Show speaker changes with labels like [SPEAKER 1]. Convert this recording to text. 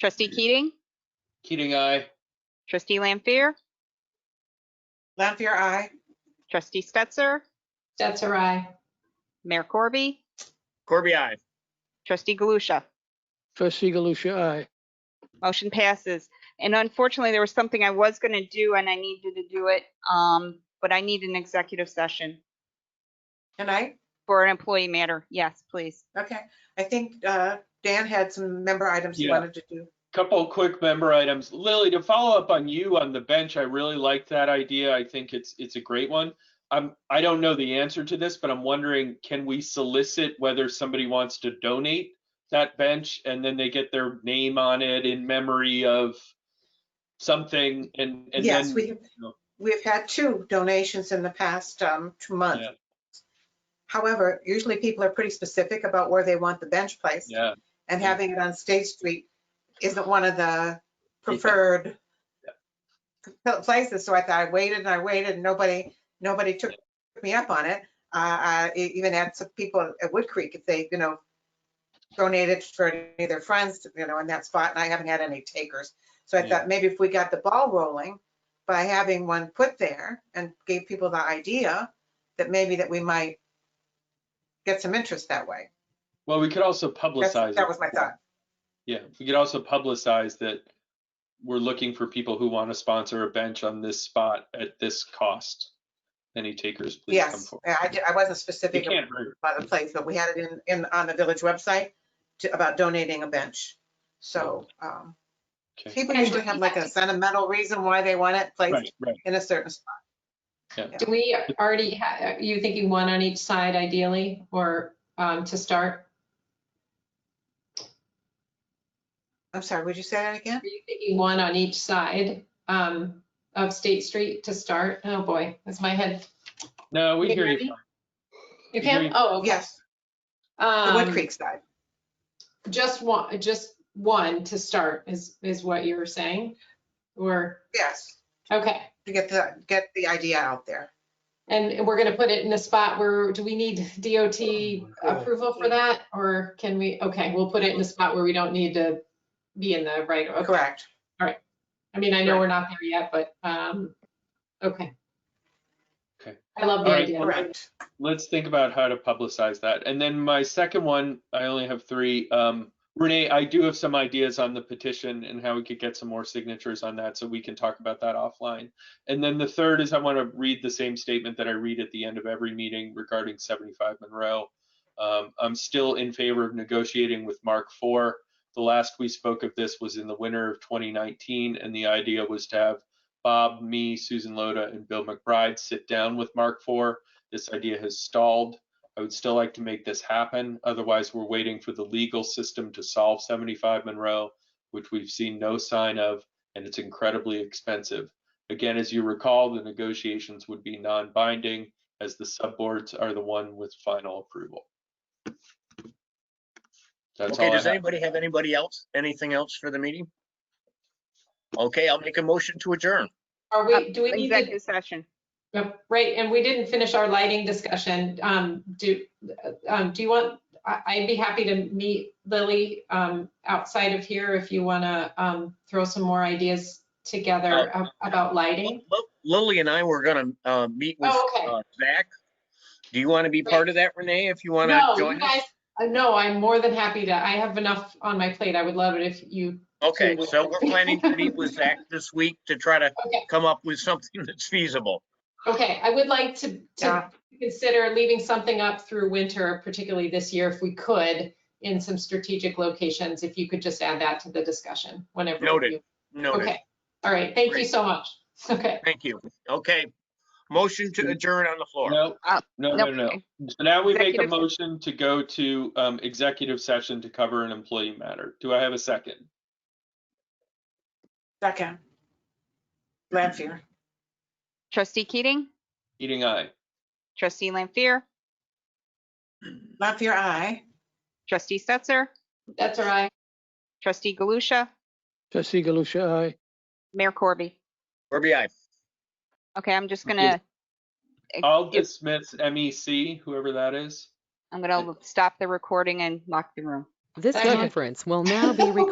[SPEAKER 1] Trustee Keating,
[SPEAKER 2] Keating, aye.
[SPEAKER 1] trustee Lampier,
[SPEAKER 3] Lampier, aye.
[SPEAKER 1] trustee Stetser,
[SPEAKER 4] Stetser, aye.
[SPEAKER 1] Mayor Corby,
[SPEAKER 5] Corby, I.
[SPEAKER 1] trustee Galusha.
[SPEAKER 6] Trustee Galusha, aye.
[SPEAKER 1] Motion passes. And unfortunately, there was something I was going to do and I needed to do it, um, but I need an executive session
[SPEAKER 3] Tonight?
[SPEAKER 1] for an employee matter. Yes, please.
[SPEAKER 3] Okay. I think uh, Dan had some member items he
[SPEAKER 2] Yeah.
[SPEAKER 3] wanted to do.
[SPEAKER 2] Couple quick member items. Lily, to follow up on you on the bench, I really like that idea. I think it's it's a great one. I'm I don't know the answer to this, but I'm wondering can we solicit whether somebody wants to donate that bench and then they get their name on it in memory of something and and
[SPEAKER 3] Yes,
[SPEAKER 2] then
[SPEAKER 3] we have, we've had two donations in the past um, two months.
[SPEAKER 2] Yeah.
[SPEAKER 3] However, usually people are pretty specific about where they want the bench placed.
[SPEAKER 2] yeah
[SPEAKER 3] And
[SPEAKER 2] Yeah.
[SPEAKER 3] having it on State Street isn't one of the preferred places. So I thought I waited and I waited and nobody, nobody took me up on it. Uh, I e- even had some people at Wood Creek, if they, you know, donated for any of their friends, you know, in that spot, and I haven't had any takers. So I
[SPEAKER 2] Yeah.
[SPEAKER 3] thought maybe if we got the ball rolling by having one put there and gave people the idea that maybe that we might get some interest that way.
[SPEAKER 2] well we could also
[SPEAKER 3] That's-
[SPEAKER 2] publicize
[SPEAKER 3] That
[SPEAKER 2] it.
[SPEAKER 3] was my thought.
[SPEAKER 2] Yeah, we could also publicize that we're looking for people who want to sponsor a bench on this spot at this cost. Any takers, please come
[SPEAKER 3] Yes,
[SPEAKER 2] forward.
[SPEAKER 3] I, I di- I wasn't
[SPEAKER 2] You
[SPEAKER 3] specific
[SPEAKER 2] can't hurt.
[SPEAKER 3] about the place, but we had it in, in, on the village website to, about donating a bench. So, um,
[SPEAKER 2] Oh, Okay.
[SPEAKER 3] people
[SPEAKER 4] And
[SPEAKER 3] usually
[SPEAKER 4] do
[SPEAKER 3] have
[SPEAKER 4] we
[SPEAKER 3] like
[SPEAKER 4] have
[SPEAKER 3] a
[SPEAKER 4] to-
[SPEAKER 3] sentimental reason why they want it placed
[SPEAKER 2] Right, right.
[SPEAKER 3] in a certain spot.
[SPEAKER 4] Do we already, ha- are you thinking one on each side ideally, or um, to start?
[SPEAKER 3] I'm sorry, would you say that again?
[SPEAKER 4] Are you thinking one on each side um, of State Street to start? Oh, boy, that's my head.
[SPEAKER 2] No, we
[SPEAKER 4] Can you
[SPEAKER 2] hear
[SPEAKER 4] hear
[SPEAKER 2] you.
[SPEAKER 4] You
[SPEAKER 2] Hear
[SPEAKER 4] can,
[SPEAKER 2] you.
[SPEAKER 4] oh, okay.
[SPEAKER 3] Yes, the Wood
[SPEAKER 4] Um,
[SPEAKER 3] Creek side.
[SPEAKER 4] Just one, just one to start is, is what you were saying? Or,
[SPEAKER 3] Yes,
[SPEAKER 4] okay.
[SPEAKER 3] to get the, get the idea out there.
[SPEAKER 4] And we're gonna put it in a spot where, do we need DOT approval for that? Or can we, okay, we'll put it in a spot where we don't need to be in the right, okay.
[SPEAKER 3] Correct.
[SPEAKER 4] I mean, I know we're not there yet, but, um, okay.
[SPEAKER 2] Okay.
[SPEAKER 4] I love the
[SPEAKER 2] All right.
[SPEAKER 4] idea.
[SPEAKER 3] Correct.
[SPEAKER 2] Let's think about how to publicize that. And then my second one, I only have three. Um, Renee, I do have some ideas on the petition and how we could get some more signatures on that, so we can talk about that offline. And then the third is I want to read the same statement that I read at the end of every meeting regarding 75 Monroe. Um, I'm still in favor of negotiating with Mark IV. The last we spoke of this was in the winter of 2019, and the idea was to have Bob, me, Susan Loda, and Bill McBride sit down with Mark IV. This idea has stalled. I would still like to make this happen. Otherwise, we're waiting for the legal system to solve 75 Monroe, which we've seen no sign of, and it's incredibly expensive. Again, as you recall, the negotiations would be non-binding as the subboards are the one with final approval. That's
[SPEAKER 5] Okay,
[SPEAKER 2] all I
[SPEAKER 5] does
[SPEAKER 2] have.
[SPEAKER 5] anybody have anybody else, anything else for the meeting? Okay, I'll make a motion to adjourn.
[SPEAKER 4] Are we, do we need to?
[SPEAKER 1] Executive session.
[SPEAKER 4] Yep, Right, and we didn't finish our lighting discussion. Um, do, um, do you want, I, I'd be happy to meet Lily, um, outside of here if you wanna, um, throw some more ideas together
[SPEAKER 2] Oh.
[SPEAKER 4] ab- about lighting.
[SPEAKER 5] Lil- Lily and I were gonna, uh, meet with
[SPEAKER 4] Oh, okay.
[SPEAKER 5] uh, Zach. Do you want to be part of that, Renee, if you want to
[SPEAKER 4] No, you
[SPEAKER 5] join us?
[SPEAKER 4] guys, uh, no, I'm more than happy to, I have enough on my plate. I would love it if you,
[SPEAKER 5] Okay,
[SPEAKER 4] too.
[SPEAKER 5] so we're planning to meet with Zach this week to try to
[SPEAKER 4] Okay.
[SPEAKER 5] come up with something that's feasible.
[SPEAKER 4] okay, I would like to, to
[SPEAKER 3] Yeah.
[SPEAKER 4] consider leaving something up through winter, particularly this year, if we could, in some strategic locations, if you could just add that to the discussion whenever.
[SPEAKER 5] Noted.
[SPEAKER 4] you-
[SPEAKER 5] Noted,
[SPEAKER 4] Okay, all right, thank you
[SPEAKER 5] Great.
[SPEAKER 4] so much. Okay,
[SPEAKER 5] thank you. Okay, motion to adjourn on the floor.
[SPEAKER 2] No,
[SPEAKER 1] Uh,
[SPEAKER 2] no, no, no. So now we make a
[SPEAKER 1] Executive-
[SPEAKER 2] motion to go to um, executive session to cover an employee matter. Do I have a second?
[SPEAKER 3] Second. Lampier,
[SPEAKER 1] Trustee Keating,
[SPEAKER 2] Eating eye.
[SPEAKER 1] trustee Lampier,
[SPEAKER 3] Lampier, aye.
[SPEAKER 1] trustee Stetser,
[SPEAKER 4] that's all right.
[SPEAKER 1] trustee Galusha,
[SPEAKER 6] Trustee Galusha, aye.
[SPEAKER 1] Mayor Corby.
[SPEAKER 5] Corby, aye.
[SPEAKER 1] Okay, I'm just
[SPEAKER 2] Okay.
[SPEAKER 1] gonna,
[SPEAKER 2] I'll
[SPEAKER 1] If-
[SPEAKER 2] dismiss MEC, whoever that is.
[SPEAKER 1] I'm gonna stop the recording and lock the room.
[SPEAKER 7] This
[SPEAKER 4] Second.
[SPEAKER 7] conference will now be recorded.